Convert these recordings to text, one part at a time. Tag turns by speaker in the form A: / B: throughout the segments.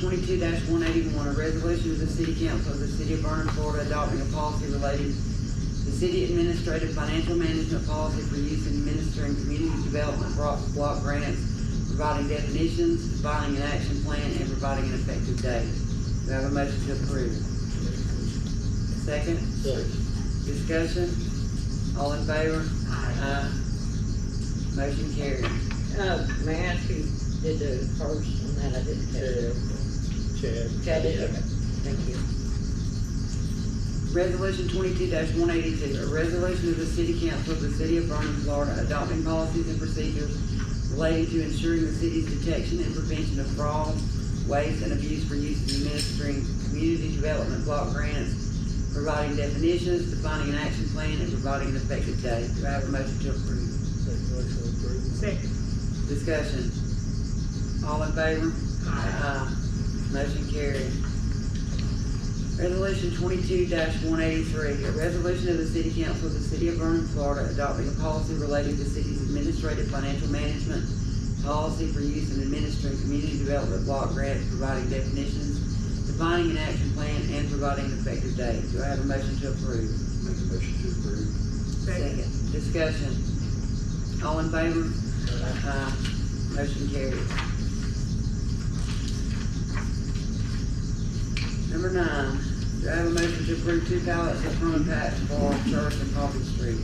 A: twenty-two one eighty-one, a resolution of the city council of the city of Vernon, Florida, adopting a policy relating to city administrative financial management policy for use in administering community development block, block grants, providing definitions, defining an action plan, and providing an effective date. Do I have a motion to approve? Second? Discussion? All in favor? Aye. Motion carried.
B: Uh, may I ask who did the first and then I did the
C: Chad.
B: Chad did, okay, thank you.
A: Resolution twenty-two one eighty-two, a resolution of the city council of the city of Vernon, Florida, adopting policies and procedures relating to ensuring the city's detection and prevention of fraud, waste, and abuse for use in administering community development block grants, providing definitions, defining an action plan, and providing an effective date. Do I have a motion to approve?
C: Make motion approved.
D: Second.
A: Discussion. All in favor? Aye. Motion carried. Resolution twenty-two one eighty-three, a resolution of the city council of the city of Vernon, Florida, adopting a policy relating to city's administrative financial management policy for use in administering community development block grants, providing definitions, defining an action plan, and providing an effective date. Do I have a motion to approve?
C: Make a motion to approve.
D: Second.
A: Discussion. All in favor? Aye. Motion carries. Number nine, do I have a motion to approve two ballots of front patch for Church and Coffee Street?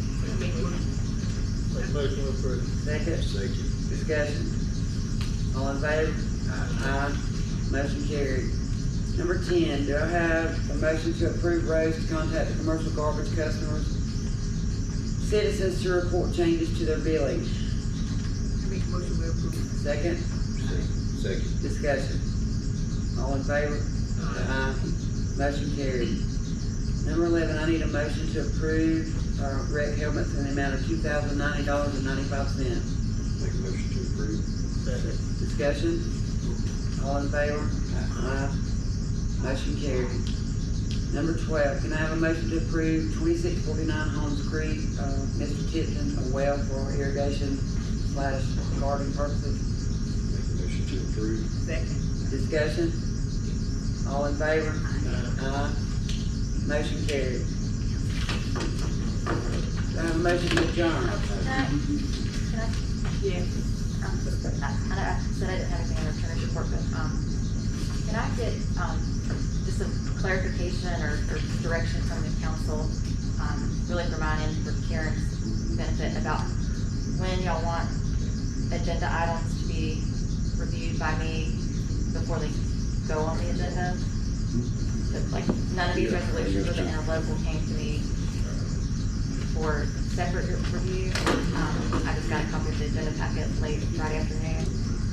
C: Make motion approved.
A: Second,
C: Second.
A: discussion. All in favor? Aye. Motion carried. Number ten, do I have a motion to approve Rose to contact the commercial garbage customers, citizens to report changes to their billing?
D: Make motion we approve.
A: Second?
C: Second.
A: Discussion. All in favor? Aye. Motion carried. Number eleven, I need a motion to approve, uh, rec helmets in the amount of two thousand ninety dollars and ninety-five cents.
C: Make a motion to approve.
B: Second.
A: Discussion. All in favor? Aye. Motion carried. Number twelve, can I have a motion to approve twenty-six forty-nine Holmes Creek, uh, Mr. Tipton, a well for irrigation slash garden purposes?
C: Make a motion to approve.
D: Second.
A: Discussion. All in favor? Aye. Motion carried. Do I have a motion to adjourn?
D: Yes.
E: Um, I, I know I said I didn't have anything under attorney report, but, um, can I get, um, just some clarification or, or direction from the council, um, really for mine and for Karen's benefit about when y'all want agenda items to be reviewed by me before they go on the agenda? But, Like, none of these
C: Yeah, I
E: resolutions
C: got
E: with an
C: you.
E: interlocal came to me for separate review. Um, I just got a copy of the agenda packet late Friday afternoon,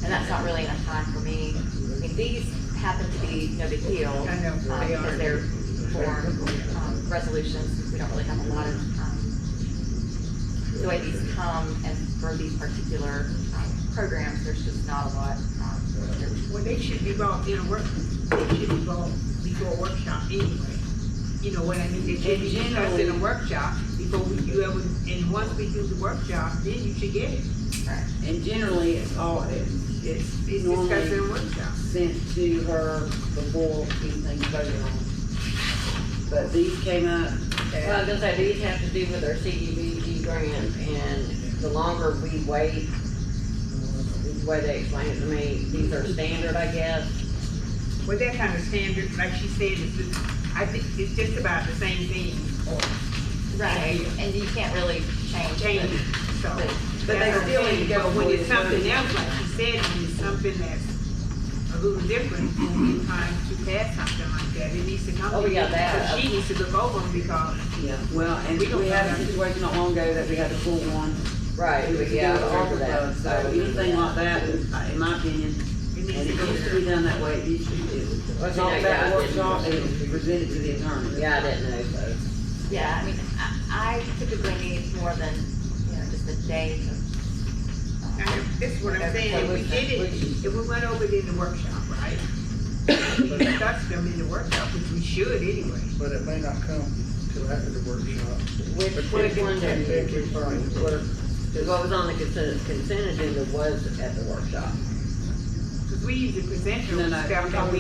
E: and that's not really enough time for me. I mean, these happen to be no big deal.
D: I know, they
E: um,
D: are.
E: Because they're for, um, resolutions, we don't really have a lot of, um, the way these come, and for these particular, um, programs, there's just not a lot, um, there's
D: Well, they should be involved in a work, they should be involved before a workshop anyway. You know what I mean? They should be
A: And
D: discussed in a
A: generally-
D: workshop before we, you ever, and once we do the workshop, then you should get it.
A: And generally, it's all, it's,
D: It's
A: it's
D: discussed in
A: normally
D: a workshop.
A: sent to her before anything's voted on. But these came up
B: Well, I was
A: at,
B: gonna say, these have to do with our CDBG grant, and the longer we wait, the way they explain it to me, these are standard, I guess.
D: Well, that kind of standard, like she said, is, is- I think it's just about the same thing or
E: Right, and you can't really change.
D: change,
E: it.
D: so.
E: But-
A: but they
D: that's
A: still
D: okay.
A: need to go
D: But When
A: before
D: it's
A: the vote.
D: something else, like she said, when it's something that's a little different, when it's time to pass something like that, it needs to come.
B: Oh,
D: to
B: yeah,
D: you.
B: that.
D: So she needs to look over them because
A: yeah, well, and
D: We don't
A: we had a
D: have-
A: situation not long ago that we had to pull one.
B: Right,
A: It was
B: yeah,
A: still
B: all of
A: over
B: that.
A: So anything like that, is, uh, in my opinion,
D: it
A: and
D: needs
A: it
D: to go
A: used
D: there.
A: to be done that way, it used to be,
B: Well,
A: it's
B: see,
A: not
B: now,
A: that
B: yeah, I didn't-
A: workshop, it was presented to the attorney.
B: Yeah, I didn't know, so.
E: Yeah, I mean, I, I typically need more than, you know, just a day to. um,
D: Now, That's what I'm
E: whatever
D: saying, if we
E: policy.
D: did it, if we went over it in the workshop, right? We discussed them in the workshop, which we should anyway.
F: but it may not come till after the workshop.
B: Which,
F: But we
B: which
F: can
B: one did
F: technically
B: you,
F: find the clerk.
B: because what was on the consent, consent agenda was at the workshop.
D: Because we usually present
A: No,
D: them
A: no,
D: stuff
A: I'm talking
D: that we